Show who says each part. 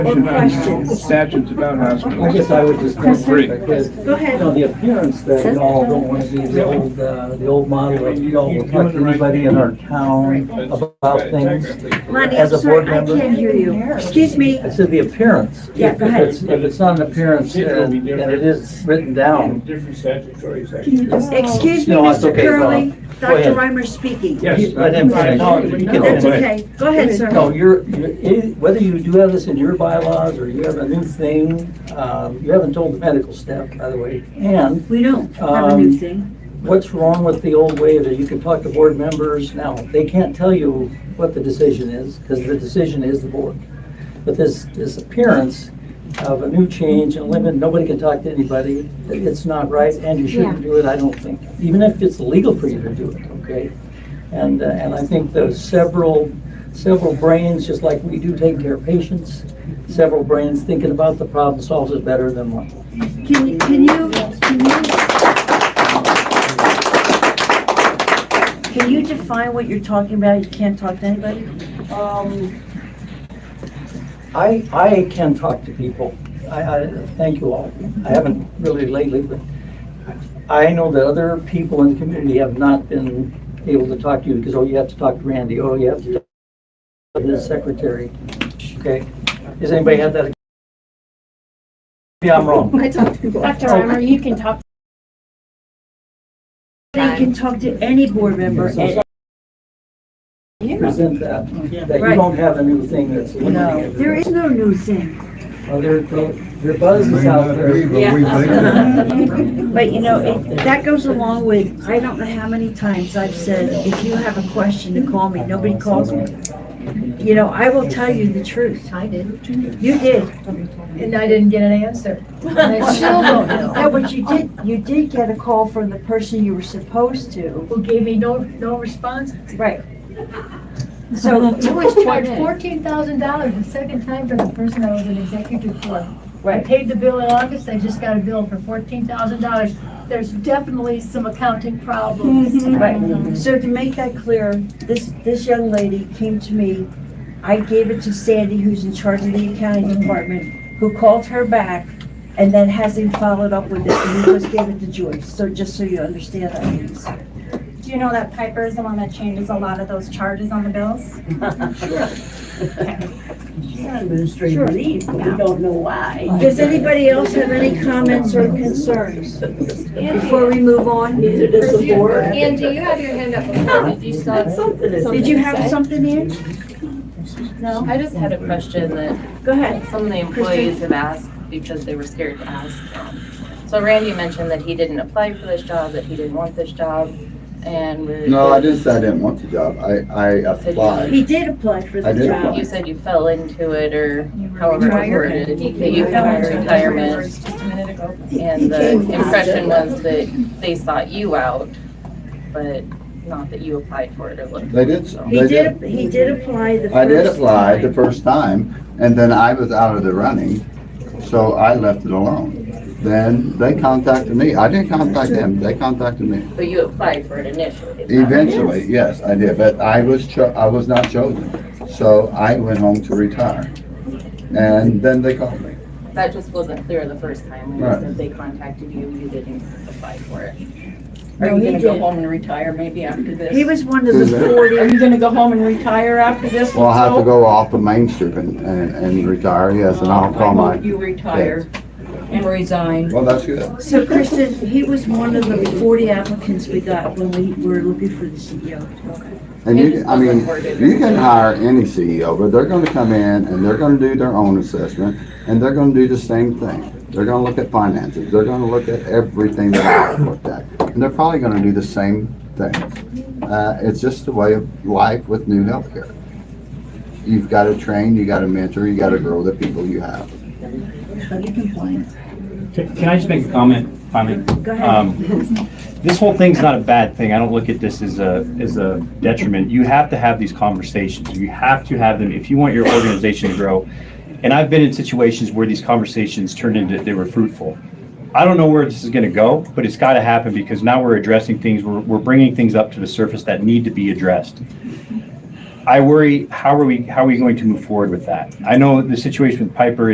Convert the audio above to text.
Speaker 1: Question on
Speaker 2: questions?
Speaker 1: Statutes about hospitals.
Speaker 3: I guess I would just.
Speaker 1: Chris,
Speaker 3: mention that,
Speaker 1: Chris,
Speaker 3: that,
Speaker 2: go ahead.
Speaker 3: You know, the appearance that y'all don't want to see the old, uh, the old model of y'all
Speaker 1: You're
Speaker 3: would
Speaker 1: doing
Speaker 3: like
Speaker 1: the right
Speaker 3: anybody in our town about things.
Speaker 2: Lonnie, I'm
Speaker 3: As a board
Speaker 2: sorry, I
Speaker 3: member.
Speaker 2: can't hear you. Excuse me.
Speaker 3: I said the appearance.
Speaker 2: Yeah,
Speaker 3: If-
Speaker 2: go
Speaker 3: if
Speaker 2: ahead.
Speaker 3: it's- If it's not an appearance and and it is written down,
Speaker 1: Different statutory sections.
Speaker 2: Excuse me,
Speaker 3: No, it's
Speaker 2: Mr.
Speaker 3: okay,
Speaker 2: Curley.
Speaker 3: Bob. Go
Speaker 2: Dr.
Speaker 3: ahead.
Speaker 2: Reimer's speaking.
Speaker 1: Yes.
Speaker 3: I didn't finish.
Speaker 1: No, you can
Speaker 2: That's
Speaker 1: go ahead.
Speaker 2: okay. Go ahead, sir.
Speaker 3: No, you're, you're- it- whether you do have this in your bylaws or you have a new thing, um, you haven't told the medical staff, by the way. And
Speaker 4: We don't have a new
Speaker 3: Um,
Speaker 4: thing.
Speaker 3: what's wrong with the old way that you can talk to board members now? They can't tell you what the decision is, because the decision is the board. But this, this appearance of a new change and limit, nobody can talk to anybody, it's not right, and you shouldn't do it, I don't think. Even if it's legal for you to do it, okay? And, uh, and I think those several, several brains, just like we do take care of patients, several brains thinking about the problem solves it better than one.
Speaker 2: Can, can you, can you? Can you define what you're talking about? You can't talk to anybody?
Speaker 3: Um, I, I can talk to people. I, I, thank you all. I haven't really lately, but I know that other people in the community have not been able to talk to you because, oh, you have to talk to Randy, oh, you have to talk to his secretary. Okay? Has anybody had that? Maybe I'm wrong.
Speaker 5: I talk to people.
Speaker 6: Dr. Reimer, you can talk.
Speaker 2: They can talk to any board member. and-
Speaker 3: Present that, that you
Speaker 2: Right.
Speaker 3: don't have a new thing that's
Speaker 2: No,
Speaker 3: limiting
Speaker 2: there
Speaker 3: it.
Speaker 2: is no new thing.
Speaker 3: Well, there, there buzz
Speaker 7: May
Speaker 3: is out
Speaker 7: not be,
Speaker 3: there.
Speaker 7: but we think it is.
Speaker 2: But you know, it- that goes along with, I don't know how many times I've said, if you have a question to call me, nobody calls me. You know, I will tell you the truth.
Speaker 5: I did,
Speaker 2: You did.
Speaker 5: and I didn't get an answer. And I still don't know.
Speaker 2: No, but you did, you did get a call from the person you were supposed to.
Speaker 5: Who gave me no, no response?
Speaker 2: Right. So,
Speaker 5: I was charged fourteen thousand dollars the second time for the person I was an executive for. I
Speaker 2: right,
Speaker 5: paid the bill in August, I just got a bill for fourteen thousand dollars. There's definitely some accounting problems.
Speaker 2: Mm-hmm. right. So to make that clear, this, this young lady came to me. I gave it to Sandy, who's in charge of the accounting department, who called her back and then hasn't followed up with it. And we just gave it to Joyce. So just so you understand that. means.
Speaker 6: Do you know that Piper is the one that changes a lot of those charges on the bills?
Speaker 2: Sure. Does anybody else have any comments or concerns before we move on? Neither does the board.
Speaker 8: Angie, you have your hand up before, did you still have something?
Speaker 2: Did you have something in?
Speaker 8: No, I just had a question that
Speaker 2: Go ahead.
Speaker 8: some of the employees have asked because they were scared to ask. So Randy mentioned that he didn't apply for this job, that he didn't want this job, and we're.
Speaker 7: No, I didn't say I didn't want the job. I, I applied.
Speaker 2: He did apply for the
Speaker 7: I did
Speaker 2: job.
Speaker 8: You said you fell into it, or however it was worded, that you fell into retirement,
Speaker 6: Just a minute ago.
Speaker 8: and the impression was that they sought you out, but not that you applied for it or looked.
Speaker 7: They did,
Speaker 8: So-
Speaker 2: He
Speaker 7: they did.
Speaker 2: did, he did apply the first
Speaker 7: I did apply the
Speaker 2: time.
Speaker 7: first time, and then I was out of the running, so I left it alone. Then they contacted me. I didn't contact them. They contacted me.
Speaker 8: But you applied for it initially. is that right?
Speaker 7: Eventually, yes, I did, but I was cho, I was not chosen. So I went home to retire. And then they called me.
Speaker 8: That just wasn't clear the first time, when you
Speaker 7: Right.
Speaker 8: said they contacted you, you didn't apply for it.
Speaker 9: Are
Speaker 2: No,
Speaker 9: you
Speaker 2: he
Speaker 9: gonna go
Speaker 2: did.
Speaker 9: home and retire maybe after
Speaker 2: He
Speaker 9: this?
Speaker 2: was one of the
Speaker 9: Are
Speaker 2: forty,
Speaker 9: you gonna go home and retire after this?
Speaker 7: Well, I have to
Speaker 9: also?
Speaker 7: go off of Main Street and, and and retire, yes, and I'll
Speaker 9: I
Speaker 7: call
Speaker 9: hope
Speaker 7: my,
Speaker 9: You retire and resign.
Speaker 7: well, that's good.
Speaker 2: so Kristen, he was one of the forty applicants we got when we were looking for the E CEO.
Speaker 7: And
Speaker 8: It
Speaker 7: you,
Speaker 8: just
Speaker 7: I mean,
Speaker 8: wasn't worded.
Speaker 7: you can hire any CEO, but they're gonna come in and they're gonna do their own assessment, and they're gonna do the same thing. They're gonna look at finances, they're gonna look at everything that I've looked at, and they're probably gonna do the same things. Uh, it's just a way of life with new healthcare. You've gotta train, you gotta mentor, you gotta grow the people you have.
Speaker 10: Can can I just make a comment, finally?
Speaker 2: Go ahead.
Speaker 10: Um, This whole thing's not a bad thing. I don't look at this as a, as a detriment. You have to have these conversations. You have to have them if you want your organization to grow. And I've been in situations where these conversations turned into, they were fruitful. I don't know where this is going to go, but it's got to happen because now we're addressing things, we're, we're bringing things up to the surface that need to be addressed. I worry, how are we, how are we going to move forward with that? I know the situation with Piper